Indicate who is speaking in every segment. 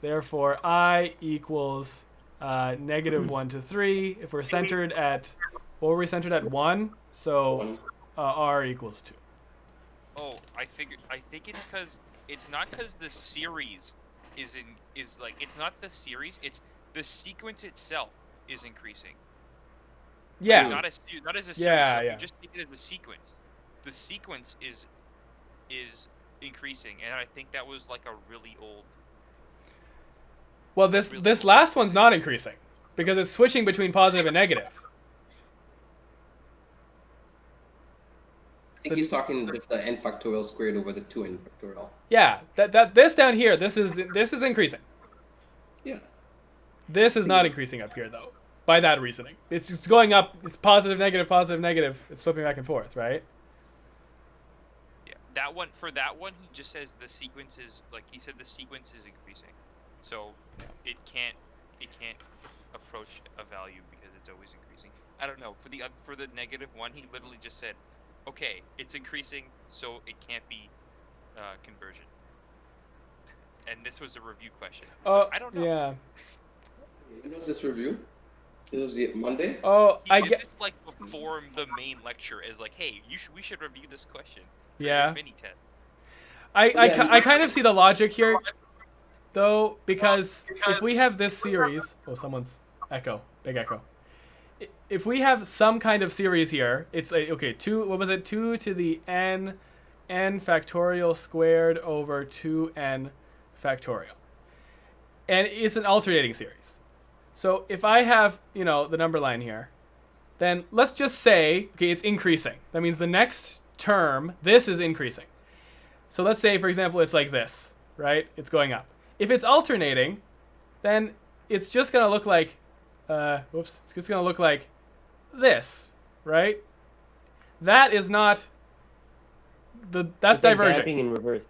Speaker 1: Therefore, I equals uh, negative one to three. If we're centered at, well, we're centered at one, so uh, r equals two.
Speaker 2: Oh, I figured. I think it's because it's not because the series is in is like it's not the series. It's the sequence itself is increasing.
Speaker 1: Yeah.
Speaker 2: Not as not as a series.
Speaker 1: Yeah,
Speaker 2: so if
Speaker 1: yeah.
Speaker 2: You just take it as a sequence. The sequence is is increasing, and I think that was like a really old.
Speaker 1: Well, this this last one's not increasing because it's switching between positive and negative.
Speaker 3: I think he's talking just the n factorial squared over the 2n factorial.
Speaker 1: Yeah, that that this down here, this is this is increasing.
Speaker 3: Yeah.
Speaker 1: This is not increasing up here though. By that reasoning, it's it's going up. It's positive, negative, positive, negative. It's flipping back and forth, right?
Speaker 2: Yeah. That one for that one, he just says the sequence is like he said the sequence is increasing, so it can't it can't approach a value because it's always increasing. I don't know for the oth- for the negative one, he literally just said, okay, it's increasing, so it can't be uh, conversion. And this was a review question. so
Speaker 1: Oh,
Speaker 2: I don't know.
Speaker 1: yeah.
Speaker 3: When was this review? It was the Monday?
Speaker 1: Oh,
Speaker 2: He
Speaker 1: I
Speaker 2: did
Speaker 1: get.
Speaker 2: this like before the main lecture is like, hey, you should we should review this question. for your
Speaker 1: Yeah.
Speaker 2: Mini test.
Speaker 1: I, I,
Speaker 3: Yeah,
Speaker 1: ki-
Speaker 3: you-
Speaker 1: I kind of see the logic here, though, because if we have this series, oh, someone's echo, big echo. I- If we have some kind of series here, it's a, okay. Two, what was it? Two to the n, n factorial squared over two n factorial, and it's an alternating series. So if I have you know the number line here, then let's just say okay, it's increasing. That means the next term, this is increasing. So let's say, for example, it's like this, right? It's going up. If it's alternating, then it's just gonna look like, uh, whoops, it's just gonna look like this, right? That is not the that's
Speaker 4: It's like
Speaker 1: divergent.
Speaker 4: dabbing in reverse.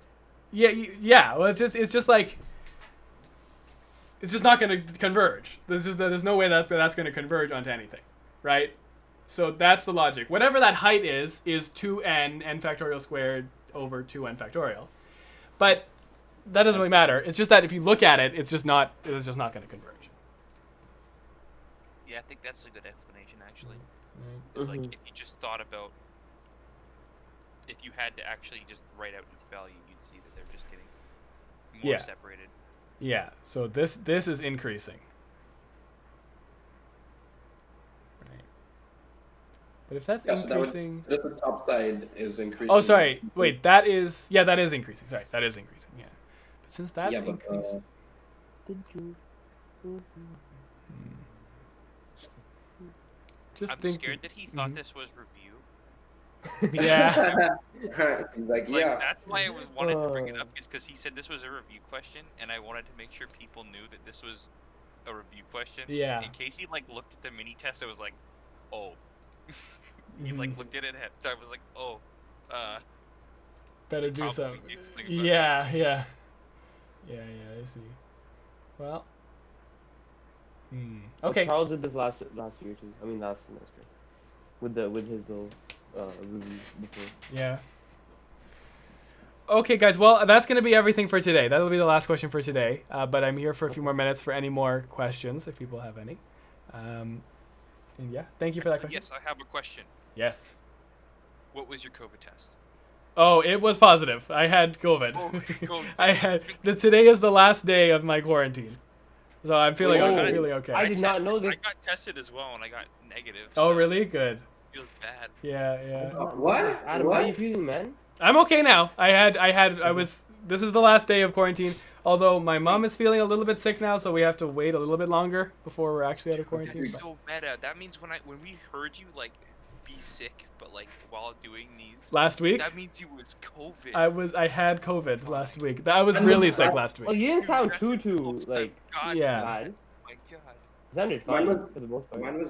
Speaker 1: Yeah, you, yeah. Well, it's just it's just like it's just not going to converge. There's just there's no way that's that's going to converge onto anything, right? So that's the logic. Whatever that height is is two n n factorial squared over two n factorial, but that doesn't really matter. It's just that if you look at it, it's just not it's just not going to converge.
Speaker 2: Yeah, I think that's a good explanation actually. It's like
Speaker 1: Mm-hmm.
Speaker 4: Mhm.
Speaker 2: if you just thought about if you had to actually just write out each value, you'd see that they're just getting more
Speaker 1: Yeah.
Speaker 2: separated.
Speaker 1: Yeah. So this this is increasing. Right. But if that's
Speaker 3: Yeah, so that was-
Speaker 1: increasing.
Speaker 3: Just the top side is increasing.
Speaker 1: Oh, sorry. Wait, that is yeah, that is increasing. Sorry, that is increasing. Yeah, but since that's
Speaker 3: yeah, but uh,
Speaker 1: increasing, just hmm.
Speaker 2: I'm
Speaker 1: think.
Speaker 2: scared that he thought
Speaker 1: Mhm.
Speaker 2: this was review.
Speaker 1: Yeah,
Speaker 3: he's like,
Speaker 2: Like
Speaker 3: yeah.
Speaker 2: that's why I was wanted to bring it
Speaker 4: Uh.
Speaker 2: up is because he said this was a review question, and I wanted to make sure people knew that this was a review question.
Speaker 1: Yeah.
Speaker 2: In case he like looked at the mini test, I was like, oh. he like
Speaker 1: Mhm.
Speaker 2: looked at it, and so I was like, oh, uh,
Speaker 1: better do
Speaker 2: probably
Speaker 1: something.
Speaker 2: needs to think about it.
Speaker 1: Yeah, yeah, yeah, yeah. I see. Well. Hmm.
Speaker 4: Well,
Speaker 1: Okay.
Speaker 4: Charles did this last last year too. I mean last semester, with the with his little uh, review before.
Speaker 1: Yeah. Okay, guys. Well, that's going to be everything for today. That'll be the last question for today. Uh, but I'm here for a few more minutes for any more questions, if people have any. Um, and yeah, thank you for that question.
Speaker 2: yes, I have a question.
Speaker 1: Yes.
Speaker 2: What was your COVID test?
Speaker 1: Oh, it was positive. I had COVID.
Speaker 2: Oh, COVID.
Speaker 1: I had the today is the last day of my quarantine, so I'm feeling
Speaker 4: Wait,
Speaker 1: I'm
Speaker 4: oh,
Speaker 1: feeling okay.
Speaker 4: I did not know this.
Speaker 2: I got tested as well, and I got negative.
Speaker 1: oh,
Speaker 2: so
Speaker 1: really? Good.
Speaker 2: It feels bad.
Speaker 1: Yeah, yeah.
Speaker 3: Uh, what?
Speaker 4: Adam, how
Speaker 3: What?
Speaker 4: you feeling, man?
Speaker 1: I'm okay now. I had I had I was this is the last day of quarantine. Although my mom is feeling a little bit sick now, so we have to wait a little bit longer before we're actually out of quarantine.
Speaker 2: That's
Speaker 1: but-
Speaker 2: so meta. That means when I when we heard you like be sick, but like while doing these,
Speaker 1: Last week,
Speaker 2: that means you was COVID.
Speaker 1: I was I had COVID last week. That- I was really sick last
Speaker 4: Well,
Speaker 1: week.
Speaker 4: you didn't
Speaker 2: Dude,
Speaker 4: sound
Speaker 2: that's
Speaker 4: too too
Speaker 2: close to
Speaker 4: like
Speaker 2: God,
Speaker 1: Yeah.
Speaker 4: bad.
Speaker 2: my God.
Speaker 4: You sounded
Speaker 3: Mine
Speaker 4: fine
Speaker 3: was-
Speaker 4: for the most part.
Speaker 3: Mine was